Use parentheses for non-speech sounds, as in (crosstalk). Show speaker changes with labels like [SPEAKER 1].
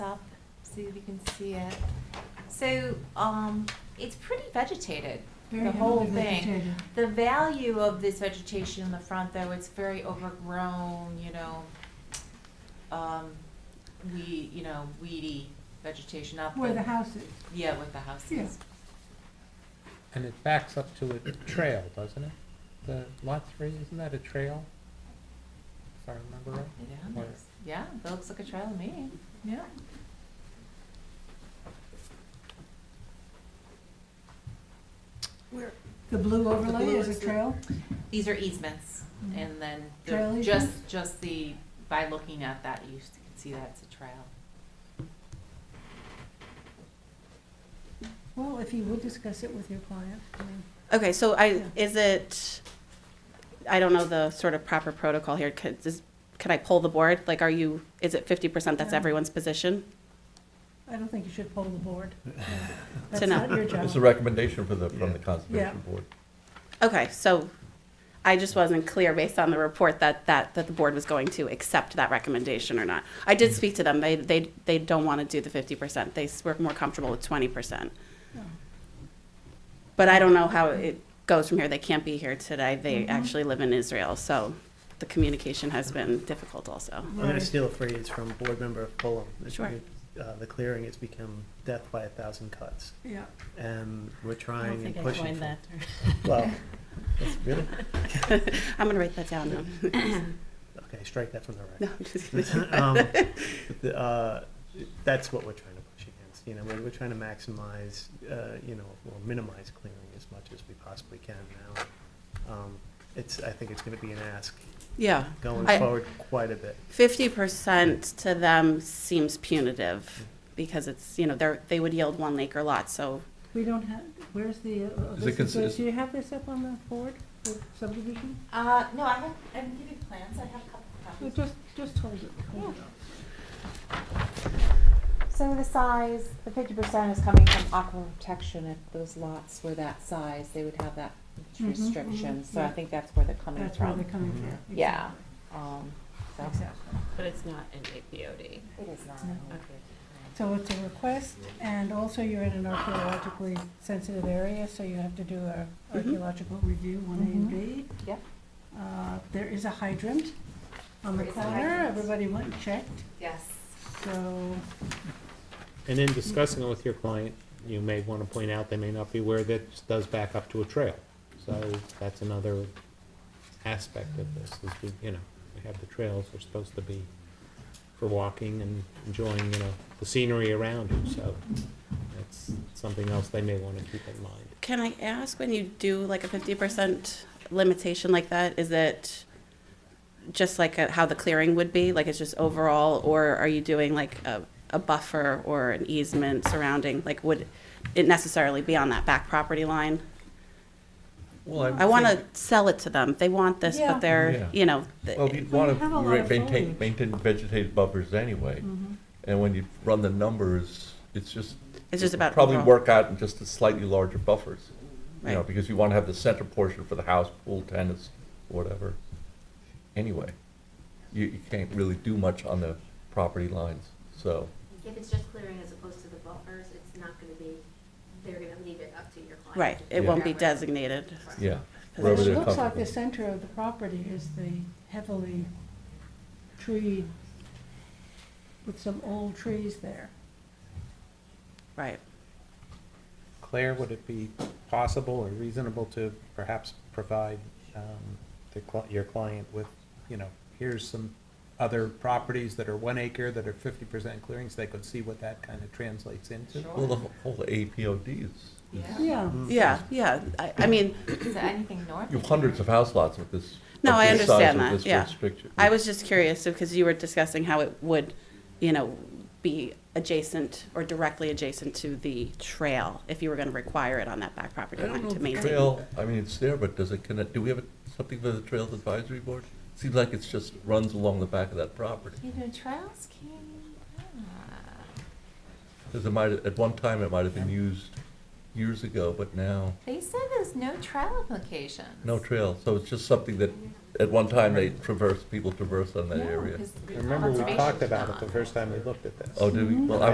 [SPEAKER 1] see if you can see it. So, um, it's pretty vegetated,
[SPEAKER 2] Very
[SPEAKER 1] the whole
[SPEAKER 2] heavily
[SPEAKER 1] thing.
[SPEAKER 2] vegetated.
[SPEAKER 1] The value of this vegetation in the front, though, it's very overgrown, you know, um, we, you know, weedy vegetation up.
[SPEAKER 2] Where the house is.
[SPEAKER 1] Yeah, with the houses.
[SPEAKER 2] Yeah.
[SPEAKER 3] And it backs up to a trail, doesn't it? The lot three, isn't that a trail? If I remember right.
[SPEAKER 1] It
[SPEAKER 3] Where-
[SPEAKER 1] is. Yeah, that looks like a trail to me. Yeah.
[SPEAKER 2] The blue overlay
[SPEAKER 4] blue
[SPEAKER 2] is
[SPEAKER 4] is
[SPEAKER 2] a
[SPEAKER 4] the-
[SPEAKER 2] trail.
[SPEAKER 1] These are easements, and then the-
[SPEAKER 2] Mm-hmm. Trail
[SPEAKER 1] just,
[SPEAKER 2] easements?
[SPEAKER 1] just the, by looking at that, you s- can see that it's a trail.
[SPEAKER 2] Well, if you would discuss it with your client, I mean,
[SPEAKER 4] Okay, so
[SPEAKER 2] Yeah.
[SPEAKER 4] I, is it, I don't know the sort of proper protocol here, could, is, could I pull the board? Like, are you, is it fifty percent, that's
[SPEAKER 2] No.
[SPEAKER 4] everyone's position?
[SPEAKER 2] I don't think you should poll the
[SPEAKER 5] (laughs)
[SPEAKER 2] board. That's
[SPEAKER 4] To know.
[SPEAKER 2] not your
[SPEAKER 5] It's a
[SPEAKER 2] job.
[SPEAKER 5] recommendation for the, from the
[SPEAKER 2] Yeah.
[SPEAKER 5] Conservation Board.
[SPEAKER 4] Okay, so I just wasn't clear based on the report that, that, that the board was going to accept that recommendation or not. I
[SPEAKER 6] Mm-hmm.
[SPEAKER 4] did speak to them, they, they, they don't want to do the fifty percent, they s- were more comfortable with twenty percent.
[SPEAKER 2] No.
[SPEAKER 4] But I don't know how it goes from here, they can't be here today, they
[SPEAKER 2] Mhm.
[SPEAKER 6] Mm-hmm.
[SPEAKER 4] actually live in Israel, so the communication has been difficult also.
[SPEAKER 7] I'm going
[SPEAKER 2] Right.
[SPEAKER 7] to steal a phrase from board member Fulham. It's-
[SPEAKER 4] Sure.
[SPEAKER 7] uh, The clearing has become death by a thousand cuts,
[SPEAKER 2] Yeah,
[SPEAKER 7] and we're
[SPEAKER 6] I don't
[SPEAKER 7] trying and
[SPEAKER 6] think I
[SPEAKER 7] pushing.
[SPEAKER 6] coined
[SPEAKER 7] for-
[SPEAKER 6] that (laughs) term.
[SPEAKER 7] (laughs) Well, that's really,
[SPEAKER 4] (laughs) I'm gonna write that down now.
[SPEAKER 7] okay, strike that from the
[SPEAKER 4] No,
[SPEAKER 7] record.
[SPEAKER 4] I'm just kidding.
[SPEAKER 7] (laughs)
[SPEAKER 6] (laughs)
[SPEAKER 7] Um, the, uh, That's what we're trying to push against, you know, we're, we're trying to maximize, uh, you know, or minimize clearing as much as we possibly can now. Um, It's, I think it's going to be an ask
[SPEAKER 4] (laughs) Yeah,
[SPEAKER 7] going
[SPEAKER 4] I-
[SPEAKER 7] forward quite a bit.
[SPEAKER 4] fifty percent to them seems punitive because it's, you know, they're, they would yield one acre lot, so
[SPEAKER 2] we don't have, where's the, uh, uh,
[SPEAKER 5] Is it
[SPEAKER 2] this is-
[SPEAKER 5] consi-
[SPEAKER 2] do you have this up on the board, the subdivision?
[SPEAKER 1] Uh, no, I have, I can give you plans, I have a couple
[SPEAKER 2] Well, Just, just hold it. hold it up.
[SPEAKER 1] So the size, the fifty percent is coming from aquifer protection, if those lots were that size, they would have that
[SPEAKER 2] Mhm,
[SPEAKER 1] restriction,
[SPEAKER 2] mhm,
[SPEAKER 1] so I
[SPEAKER 2] yeah.
[SPEAKER 1] think Mm-hmm, that's where they're coming
[SPEAKER 2] That's where they're
[SPEAKER 1] from.
[SPEAKER 2] coming from.
[SPEAKER 1] Yeah, um, so.
[SPEAKER 2] Exactly.
[SPEAKER 6] But it's not an APOD.
[SPEAKER 1] It is not.
[SPEAKER 2] No. So it's a request, and also you're in an archaeologically sensitive area, so you have to do a
[SPEAKER 4] Mhm.
[SPEAKER 2] archaeological review, one A and B.
[SPEAKER 1] Mm-hmm. Yep.
[SPEAKER 2] Uh, There is a hydrant on the
[SPEAKER 1] There is a
[SPEAKER 2] corner,
[SPEAKER 1] hydrant.
[SPEAKER 2] everybody went and checked,
[SPEAKER 1] Yes.
[SPEAKER 2] so,
[SPEAKER 3] And in discussing it with your client, you may want to point out they may not be aware that this does back up to a trail. So that's another aspect of this, is we, you know, we have the trails, they're supposed to be for walking and enjoying, you know, the scenery around you, so that's something else they may want to keep in mind.
[SPEAKER 4] Can I ask when you do like a fifty percent limitation like that, is it just like a, how the clearing would be, like it's just overall, or are you doing like a, a buffer or an easement surrounding, like would it necessarily be on that back property line?
[SPEAKER 5] Well,
[SPEAKER 4] I wanna sell it to them, they want this,
[SPEAKER 2] Yeah.
[SPEAKER 4] but they're,
[SPEAKER 5] Yeah.
[SPEAKER 4] you know, th-
[SPEAKER 5] Well, you'd
[SPEAKER 2] Well,
[SPEAKER 5] want
[SPEAKER 2] you have a
[SPEAKER 5] to
[SPEAKER 2] lot of
[SPEAKER 5] maintain,
[SPEAKER 2] foliage. Mm-hmm.
[SPEAKER 5] maintain vegetated buffers anyway. And when you run the numbers, it's just.
[SPEAKER 4] it's just
[SPEAKER 5] it'll
[SPEAKER 4] about
[SPEAKER 5] Probably
[SPEAKER 4] overall.
[SPEAKER 5] work out in just a slightly larger buffers, you know,
[SPEAKER 4] Right.
[SPEAKER 5] because you want to have the center portion for the house, pool, tennis, whatever. Anyway, you, you can't really do much on the property lines, so.
[SPEAKER 8] If it's just clearing as opposed to the buffers, it's not gonna be, they're gonna leave it up to your client.
[SPEAKER 4] Right,
[SPEAKER 8] to
[SPEAKER 4] it won't be
[SPEAKER 8] figure out where-
[SPEAKER 4] designated.
[SPEAKER 5] Yeah,
[SPEAKER 2] It
[SPEAKER 5] Wherever they're
[SPEAKER 2] looks like
[SPEAKER 5] comfortable.
[SPEAKER 2] the center of the property is the heavily tree, with some old trees there.
[SPEAKER 4] Right,
[SPEAKER 3] Claire, would it be possible or reasonable to perhaps provide um, the cli- your client with, you know, here's some other properties that are one acre that are fifty percent clearings, they could see what that kind of translates into?
[SPEAKER 5] well, the whole- whole APOD is,
[SPEAKER 1] Yeah,
[SPEAKER 2] Yeah.
[SPEAKER 4] yeah, yeah, I, I mean,
[SPEAKER 1] so anything north?
[SPEAKER 5] you have hundreds of house lots with this.
[SPEAKER 4] No,
[SPEAKER 5] of
[SPEAKER 4] I
[SPEAKER 5] this size,
[SPEAKER 4] understand
[SPEAKER 5] with
[SPEAKER 4] that,
[SPEAKER 5] this
[SPEAKER 4] yeah.
[SPEAKER 5] restriction-
[SPEAKER 4] I was just curious, because you were discussing how it would, you know, be adjacent or directly adjacent to the trail, if you were gonna require it on that back property
[SPEAKER 5] I don't
[SPEAKER 4] line
[SPEAKER 5] know
[SPEAKER 4] to
[SPEAKER 5] if the
[SPEAKER 4] maintain.
[SPEAKER 5] trail, I mean, it's there, but does it connect, do we have a- something for the Trails Advisory Board? Seems like it's just runs along the back of that property.
[SPEAKER 1] You know, trails can, ah.
[SPEAKER 5] Because it might, at one time, it might have been used years ago, but now,
[SPEAKER 1] they said there's no trail applications.
[SPEAKER 5] no trail. So it's just something that, at one time, they traverse, people traverse on that area.
[SPEAKER 3] I remember we talked about it the first time we looked at this.
[SPEAKER 5] Oh, did we, well, I